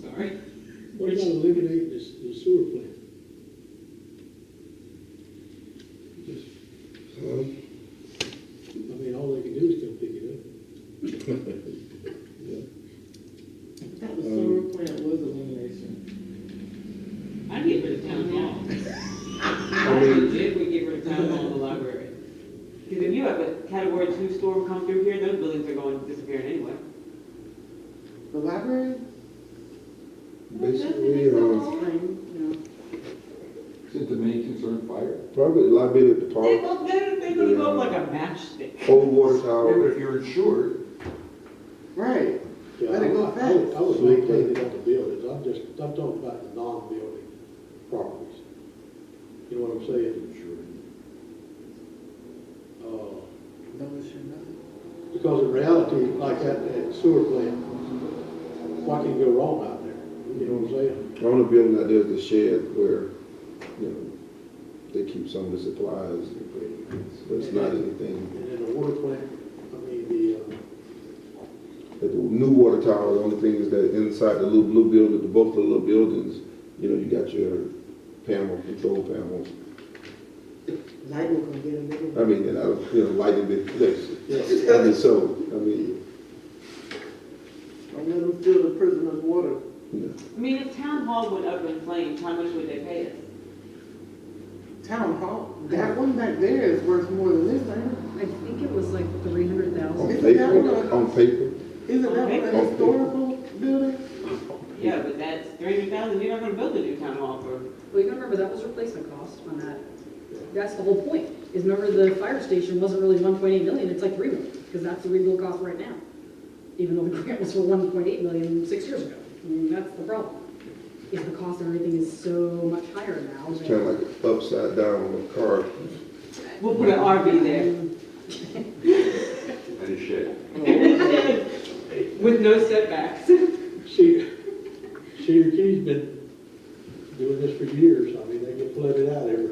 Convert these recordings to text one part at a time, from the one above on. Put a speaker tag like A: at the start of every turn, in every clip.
A: sorry.
B: What about eliminating the s- the sewer plant? Just,
C: Uh,
B: I mean, all they can do is come pick it up.
D: That was sewer plant was elimination.
A: I get rid of town hall.
D: I
A: I
D: mean,
A: think Jim would get rid of town hall and the library. Because if you have a category two storm come through here, those buildings are going disappearing anyway.
D: the library,
C: Basically, uh,
D: spring,
E: Is it the main concern fire?
C: probably liability
A: They
C: department,
A: go, they're, they're gonna go up like a matchstick.
C: old water
E: Yeah, but if
C: tower,
E: you're insured,
D: no, right.
B: Yeah,
D: Let it go
B: I- I-
D: fast.
B: I would- I would like to take it out the buildings, I'm just, I'm talking about the non-building properties. You know what I'm saying? Uh,
D: Don't issue nothing.
B: Because in reality, like that that sewer plant, what can go wrong out there? You know what I'm saying?
C: the only building that there's the shed where, you know, they keep some of the supplies, but it's not anything.
B: And then the water plant, I mean, the, uh,
C: At the new water tower, the only thing is that inside the little blue building, the both the little buildings, you know, you got your panel, control panels.
D: Light will come get a little.
B: Uh,
C: I mean, and I, was, you know, lighting the place.
B: yes,
C: I mean, so, I mean,
D: Don't let them steal the prisoner's water.
C: you know.
A: I mean, if town hall went up in flames, how much would they pay us?
D: Town hall, that one back there is worth more than this, ain't
F: I think it was like three hundred
C: On
F: thousand.
D: It's
C: paper,
D: available.
C: on paper,
D: it? Isn't that one a historical building?
A: Yeah, but that's three hundred thousand, you're not gonna build a new town hall for,
F: Well, you gotta remember, that was replacement cost on that. That's the whole point, is remember the fire station wasn't really one point eight million, it's like three million, because that's the rebuild cost right now. Even though the grant was for one point eight million six years ago. I mean, that's the problem. Is the cost of everything is so much higher now.
C: it's kind of like an upside down car.
A: we'll put an RV there.
E: and a shed.
A: With no setbacks.
B: Cedar, Cedar Key's been doing this for years, I mean, they get flooded out every,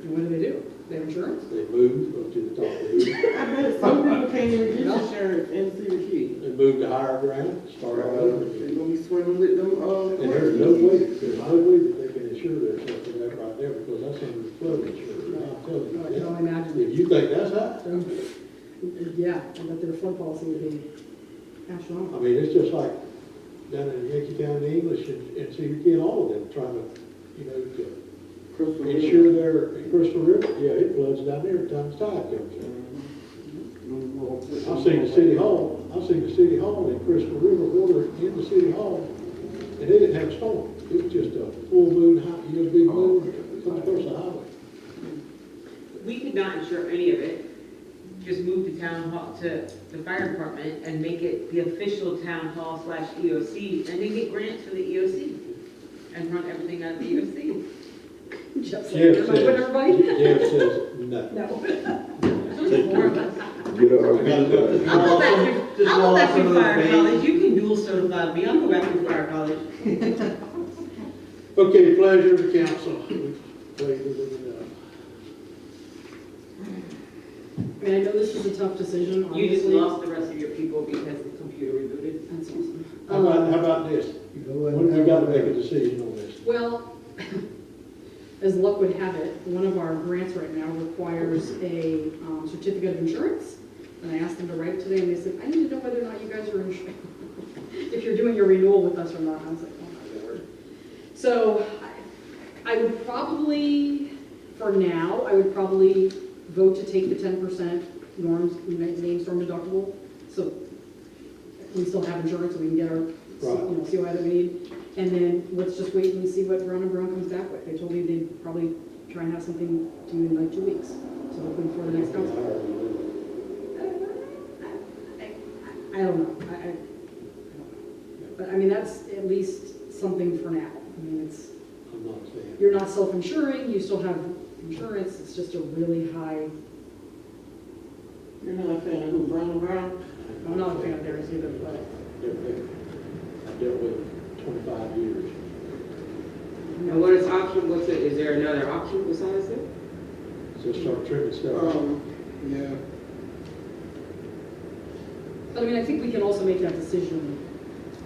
F: And what do they do? They have insurance?
B: they move up to the top of the hill,
D: I bet some people can't even get insurance in Cedar Key.
B: they move to higher ground, start all over
D: They're
B: again.
D: gonna be swimming with them, uh.
B: And there's no way, there's no way that they can insure themselves in that right there, because that's under the flood insurance, I'm telling
F: Oh, I can
B: you.
F: only imagine.
B: If you think that's high,
F: Yeah, I bet their flood policy would be
B: I
F: astronomical.
B: mean, it's just like down in Yankee County, English, and, and Cedar Key, and all of them trying to, you know, to
D: Crystal Lake. Uh-huh.
B: insure their, in Crystal River, yeah, it floods down there every time the tide comes in.
D: Mm-hmm.
B: I've seen the city hall, I've seen the city hall in Crystal River water in the city hall, and they didn't have a storm. It was just a full moon, high, you know, big
F: Oh.
B: moon, come across the highway.
G: We could not insure any of it, just move the town hall to the fire department and make it the official town hall slash EOC, and then get grants for the EOC, and run everything out of the E EOC.
F: Jeff said,
B: Jeff
F: "Am I putting everybody?"
B: says, Jeff says, no.
F: No.
C: Get a,
G: I'll go back to,
H: Just
G: I'll go
H: roll
G: back
H: out some
G: to
H: of those
G: fire
H: veins.
G: college, you can dual certify me, I'll go back to fire college.
B: Okay, pleasure of the council. We've waited long enough.
F: I mean, I know this is a tough decision, obviously.
A: You just lost the rest of your people because the computer rebooted.
F: That's awesome.
B: How about,
F: Um,
B: how about this? When we gotta make a decision on this.
F: Well, as luck would have it, one of our grants right now requires a um, certificate of insurance. And I asked them to write today, and they said, I need to know whether or not you guys are insured, if you're doing your renewal with us or not. I was like, oh my lord. So I- I would probably, for now, I would probably vote to take the ten percent norms, name storm deductible. So we still have insurance, we can get our, you know, COI that we need. And then let's just wait and see what Brown and Brown comes back with. They told me they'd probably try and have something due in like two weeks. So hopefully before the next council. I- I- I don't know. I, I, I don't know. But I mean, that's at least something for now. I mean, it's,
B: I'm not saying.
F: you're not self-insuring, you still have insurance, it's just a really high,
D: You're not a fan of who, Brown and Brown?
F: I'm not a fan of theirs either, but.
B: I've dealt with it twenty-five years.
G: And what is option, what's it, is there another option besides that?
B: So start trimming
F: Oh.
B: stuff.
D: Um, yeah.
F: But I mean, I think we can also make that decision